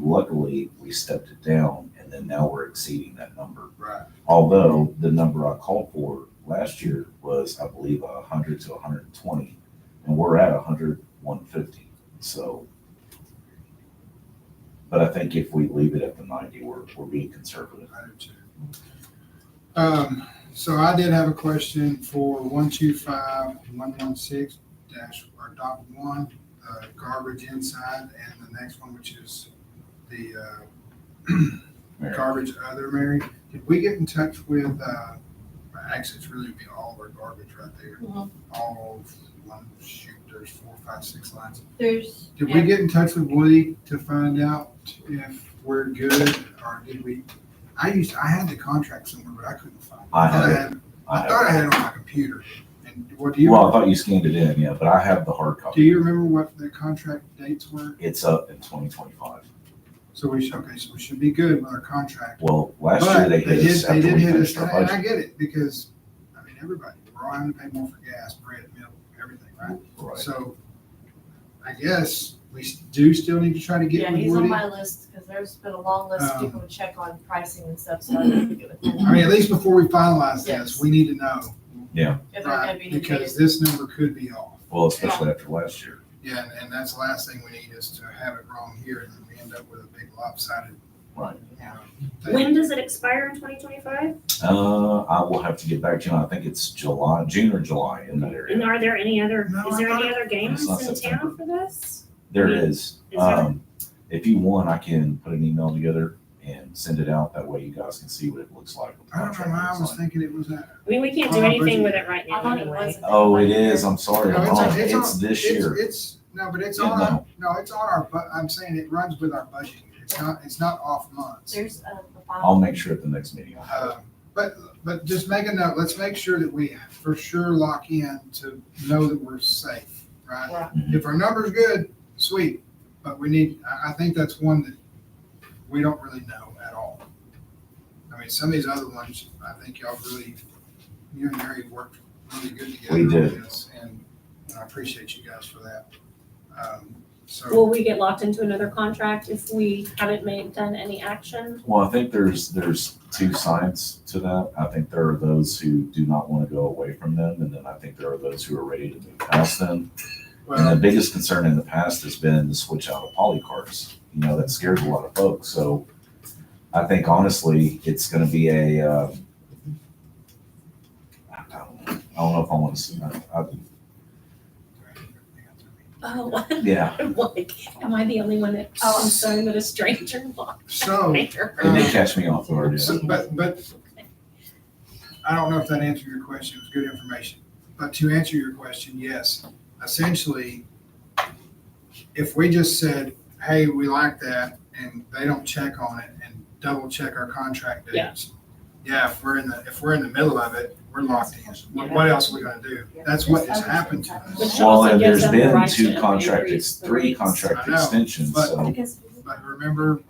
legally, we stepped it down, and then now we're exceeding that number. Right. Although the number I called for last year was, I believe, a hundred to hundred and twenty, and we're at a hundred, one fifty, so. But I think if we leave it at the ninety, we're, we're being conservative. I do too. Um, so I did have a question for one two five, one one six dash, or dot one, uh, garbage inside, and the next one, which is the, uh, Mary. garbage other, Mary. Did we get in touch with, uh, well, actually, it's really be all of our garbage right there. Mhm. All of, one, shoot, there's four, five, six lines. There's. Did we get in touch with Woody to find out if we're good or did we? I used, I had the contract somewhere, but I couldn't find it. I have thought it. had- I I thought I have, had it on my computer. And what do you, well, I thought you scanned it in, yeah, but I have the hard do copy. you remember what the contract dates were? It's up in twenty twenty-five. So we should, okay, so we should be good with our contract. Well, last year But they hit us They after did we hit us, finished and our I- and I budget. get it because, I mean, everybody, we're all having to pay more for gas, bread, milk, everything, right? Right. So I guess we s- do still need to try to get Yeah, with he's on Woody. my list, because there's been a long list of Um, people to check on pricing and stuff, so I need to get with I them. mean, at least before we finalize this, Yes. we need to know. If they're gonna be Right, because needed. this number could be off. Well, especially after last year. Yeah, and- and that's the last thing we need is to have it wrong here and then we end up with a big lopsided. Right. you know, thing. When does it expire in twenty twenty-five? Uh, I will have to get back to you. I think it's July, June or July in that And area. are there any other, No, is there I thought any other games It's not in September. town for this? There is. Is there? Um, if you want, I can put an email together and send it out. That way you guys can see what it looks like. what the I don't know, contract why I looks was like. thinking it was that. I mean, we can't do Oh, anything Bridget. with it right I now thought it anyway. was. Oh, it is. I'm sorry. No, I'm it's on- wrong. it's It's on- this it's- year. It's, no, but it's Yeah, on, our- no, it's on our, bu- I'm saying it runs with our budget. It's not, it's not off months. There's uh, the I'll file, make sure at the next meeting. I'll have it. Uh, But, but just make a note, let's make sure that we for sure lock in to know that we're safe, right? Right. Mm-hmm. If our number's good, sweet, but we need, I, I think that's one that we don't really know at all. I mean, some of these other ones, I think y'all really, you and Mary worked really good together. We on did. this, And I appreciate you guys for that. Um, So, Will we get locked into another contract if we haven't made, done any action? Well, I think there's, there's two sides to that. I think there are those who do not want to go away from them. And then I think there are those who are ready to move past them. And the well, biggest concern in the past has been the switch out of poly carts. You know, that scares a lot of folks. So I think honestly, it's going to be a, um, I don't know. I don't know if I uh, want to, I, I, Oh, yeah. like, am I the only one that's Oh. concerned that a stranger locked so, there? It did catch me off guard. yeah. so- but, but I don't know if that answered your question. It was good information. But to answer your question, yes, essentially, if we just said, hey, we like that, and they don't check on it and double check our contract Yeah. dates. Yeah, if we're in the, if we're in the middle of it, we're locked in. What, what else are we gonna do? That's what has happened to us. Which Well, also and gives there's them the been right to two increase contract, the ex- three rates. contract I know, extensions, but- so. because. But remember,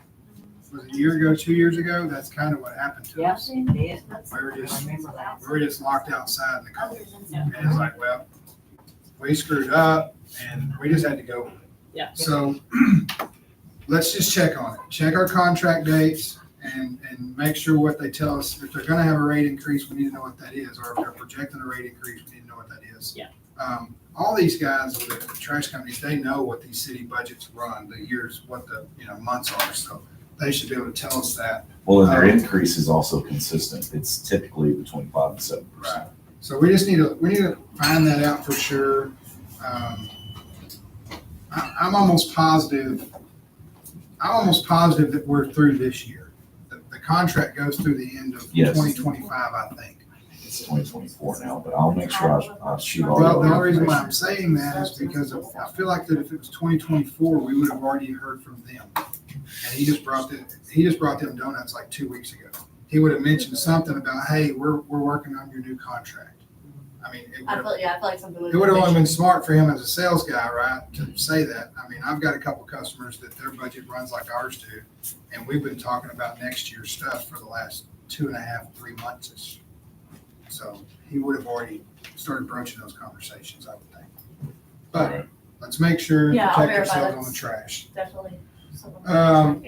was it a year ago, two years ago? That's kind of what happened to us. Yes, it did. that's We were just, I we remember that. were just locked outside in the cold. Other than Yeah. that. And it's like, well, we screwed up and we just had to go. Yeah. So let's just check on it. Check our contract dates and, and make sure what they tell us. If they're gonna have a rate increase, we need to know what that is. Or if they're projecting a rate increase, we need to know what that is. Yeah. Um, all these guys with the trash companies, they know what these city budgets run, the years, what the, you know, months are. So they should be able to tell us that. Well, and their uh, Um, increase is also consistent. It's typically between five and seven percent. Right. So we just need to, we need to find that out for sure. Um, I, I'm almost positive, I'm almost positive that we're through this year. The, the contract goes through the end of Yes. twenty twenty-five, I think. It's twenty twenty-four now, but I'll make sure I, I shoot all. Well, the the only reason why information. I'm saying that is because of- I feel like that if it was twenty twenty-four, we would have already heard from them. And he just brought the, he just brought them donuts like two weeks ago. He would have mentioned something about, hey, we're, we're working on your new contract. I mean, it would I have feel, yeah, I feel like something would. It would have only been smart for him as a sales guy, right, to say that. I mean, I've got a couple customers that their budget runs like ours do, and we've been talking about next year's stuff for the last two and a half, three months. So he would have already started broaching those conversations, I would think. But let's make sure and Yeah, I'll protect verify ourselves on the that's- trash. Definitely. something- Um,